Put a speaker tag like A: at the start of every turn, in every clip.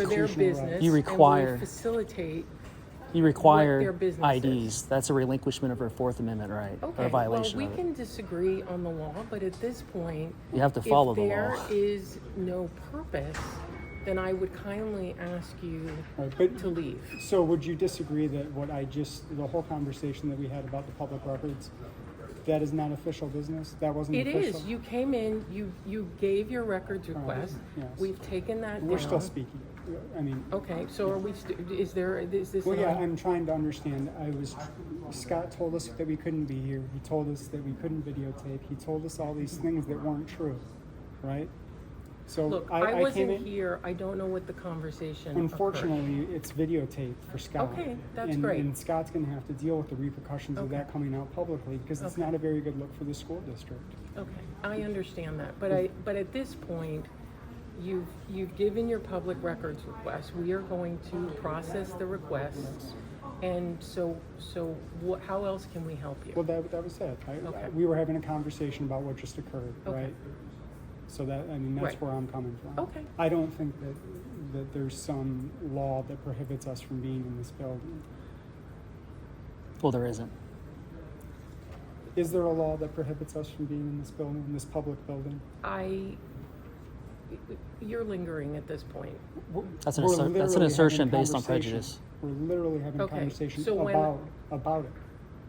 A: for their business.
B: You
A: and we
B: require-
A: Facilitate,
B: You require
A: their business
B: IDs. That's a relinquishment of our Fourth Amendment right, or
A: okay.
B: a violation
A: Well,
B: of
A: we
B: it.
A: can disagree on the law, but at this point.
B: You have to follow the law.
A: If there is no purpose, then I would kindly ask you
C: Right, but-
A: to leave.
C: So would you disagree that what I just, the whole conversation that we had about the public records, that is not official business? That wasn't
A: It
C: official?
A: is, you came in, you, you gave your records request.
C: yes.
A: We've taken that down.
C: We're still speaking. I mean,
A: Okay, so are we, st- is there, is this?
C: well, yeah,
A: not-
C: I'm trying to understand. I was, Scott told us that we couldn't be here. He told us that we couldn't videotape. He told us all these things that weren't true, right? So
A: Look, I
C: I, I came
A: wasn't
C: in,
A: here, I don't know what the conversation occurred.
C: unfortunately, it's videotaped for Scott.
A: Okay, that's
C: and-
A: great.
C: And Scott's gonna have to deal with the repercussions of
A: Okay.
C: that coming out publicly because it's
A: Okay.
C: not a very good look for the school district.
A: Okay, I understand that, but I, but at this point, you've, you've given your public records request, we are going to process the request. And so, so what, how else can we help
C: Well,
A: you?
C: that, that was it. I-
A: Okay.
C: We were having a conversation about what just occurred,
A: Okay.
C: right? So that, I mean, that's
A: Right.
C: where I'm coming from.
A: Okay.
C: I don't think that, that there's some law that prohibits us from being in this building.
B: Well, there isn't.
C: Is there a law that prohibits us from being in this building, in this public building?
A: I, you're lingering at this point.
C: We're-
B: That's an
C: we're
B: asser- that's an
C: literally having
B: assertion based on
C: conversation.
B: prejudice.
C: We're literally having a
A: Okay,
C: conversation
A: so when-
C: about, about it.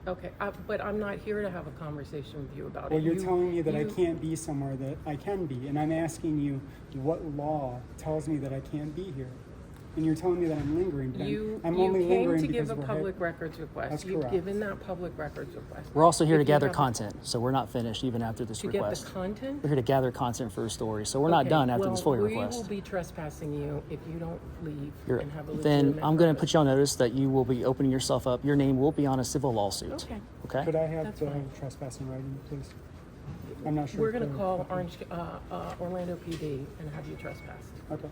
A: Okay, I- but I'm not here to have a conversation with you about it.
C: Well, you're
A: You-
C: telling me that I
A: you-
C: can't be somewhere that I can be, and I'm asking you what law tells me that I can't be here, and you're telling me that I'm lingering. But I'm-
A: You,
C: I'm,
A: you
C: only
A: came
C: lingering
A: to give
C: because
A: a
C: we're
A: public
C: hit-
A: records request.
C: That's
A: You've
C: correct.
A: given that public records request.
B: We're also here to
A: If you
B: gather
A: have-
B: content, so we're not finished even after this
A: To get the
B: request.
A: content?
B: We're here to gather content for a story, so we're not
A: Okay,
B: done after this FOIA
A: Well, we
B: request.
A: will be trespassing you if you don't leave
B: You're-
A: and have a
B: Then
A: legitimate
B: I'm going to
A: purpose.
B: put you on notice that you will be opening yourself up. Your name will be on a civil lawsuit.
A: Okay.
B: Okay?
C: Could I have
A: That's
C: the
A: fine.
C: trespassing writing, please? I'm not sure.
A: We're
C: if
A: gonna
C: they're-
A: call Orange, uh, uh, Orlando PD and have you trespassed,
C: Okay.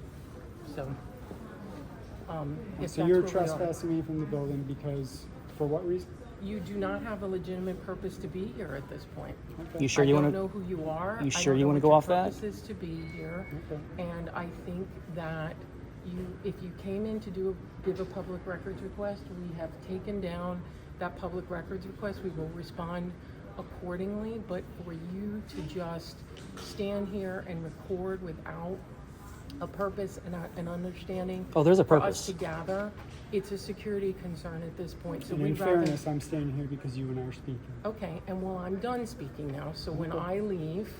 A: so. um, if that's
C: So you're
A: where we are.
C: trespassing me from the building because for what reason?
A: You do not have a legitimate purpose to be here at this point.
C: Okay.
B: You sure you
A: I
B: want
A: don't know
B: to?
A: who you are.
B: You
A: I
B: sure
A: don't
B: you
A: know
B: wanna
A: what
B: go
A: your
B: off that?
A: purpose is to be here,
C: Okay.
A: and I think that you, if you came in to do, a- give a public records request, we have taken down that public records request, we will respond accordingly, but for you to just stand here and record without a purpose and a- an understanding.
B: Oh, there's a
A: For us
B: purpose.
A: to gather, it's a security concern at this point, so
C: And in
A: we'd rather.
C: fairness, I'm staying here because you and I are speaking.
A: Okay, and well, I'm done speaking now, so when I leave,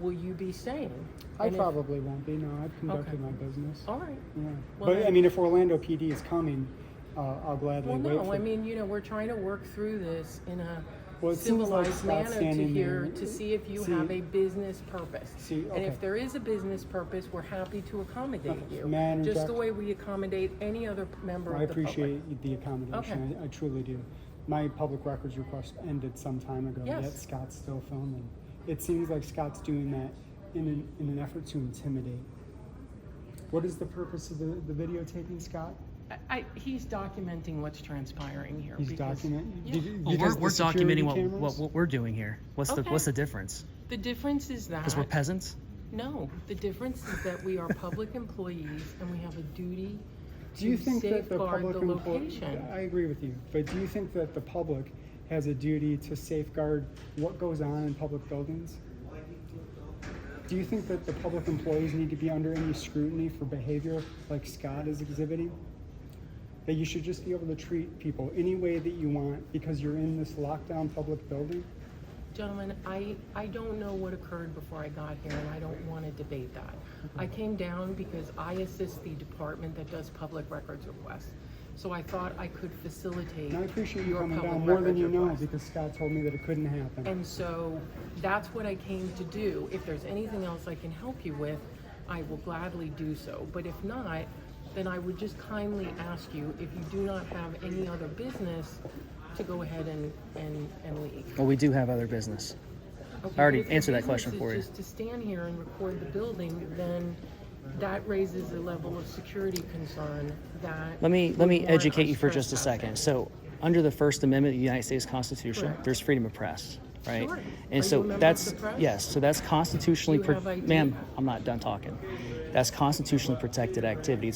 A: will you be staying?
C: I
A: And if-
C: probably won't be. No, I've conducted
A: Okay.
C: my business.
A: All right.
C: Yeah.
A: Well,
C: But I
A: then-
C: mean, if Orlando PD is coming, uh, I'll gladly
A: Well,
C: wait for.
A: no, I mean, you know, we're trying to work through this in a
C: Well, it seems like
A: civilized
C: Scott's
A: manner to
C: standing
A: hear,
C: there.
A: to see if you
C: See-
A: have a business purpose.
C: See,
A: And
C: okay.
A: if there is a business purpose, we're happy to accommodate
C: Okay,
A: you.
C: may I
A: Just
C: interject?
A: the way we accommodate any other p- member
C: I
A: of the public.
C: appreciate the accommodation.
A: Okay.
C: I, I truly do. My public records request ended some time ago,
A: Yes.
C: yet Scott's still filming. It seems like Scott's doing that in an, in an effort to intimidate. What is the purpose of the, the videotaping, Scott?
A: I- I, he's documenting what's transpiring here.
C: He's
A: because-
C: documenting.
A: Yeah.
B: Well, Oh, we're, we're documenting what, what, what we're doing here. What's the
A: Okay.
B: what's the difference?
A: The difference is that.
B: Because we're peasants.
A: No, the difference is that we are public employees and we have a duty
C: Do you
A: to
C: think that the
A: safeguard
C: public
A: the
C: emplo-
A: location.
C: I agree with you, but do you think that the public has a duty to safeguard what goes on in public buildings? Do you think that the public employees need to be under any scrutiny for behavior like Scott is exhibiting? That you should just be able to treat people any way that you want because you're in this lockdown public building?
A: Gentlemen, I, I don't know what occurred before I got here and I don't want to debate that. I came down because I assist the department that does public records requests. So I thought I could facilitate
C: And I appreciate you
A: your
C: coming
A: public
C: down more than
A: records
C: you know
A: request.
C: because Scott told me that it couldn't happen.
A: And so that's what I came to do. If there's anything else I can help you with, I will gladly do so. But if not, then I would just kindly ask you, if you do not have any other business, to go ahead and, and, and leave.
B: Well, we do have other business.
A: Okay,
B: I already
A: but if your
B: answered that
A: business
B: question
A: is
B: for you.
A: Just to stand here and record the building, then that raises a level of security concern that.
B: Let me let
A: would
B: me
A: warrant
B: educate
A: us
B: you for just a
A: trespassing.
B: second. So, under the First Amendment of the United States Constitution,
A: Correct.
B: there's freedom of press, right?
A: Sure. Are you
B: And
A: a
B: so
A: member of
B: that's
A: the press?
B: yes, so that's constitutionally
A: Do you
B: pro-
A: have ID?
B: ma'am, I'm not done talking. That's constitutionally protected activity. It's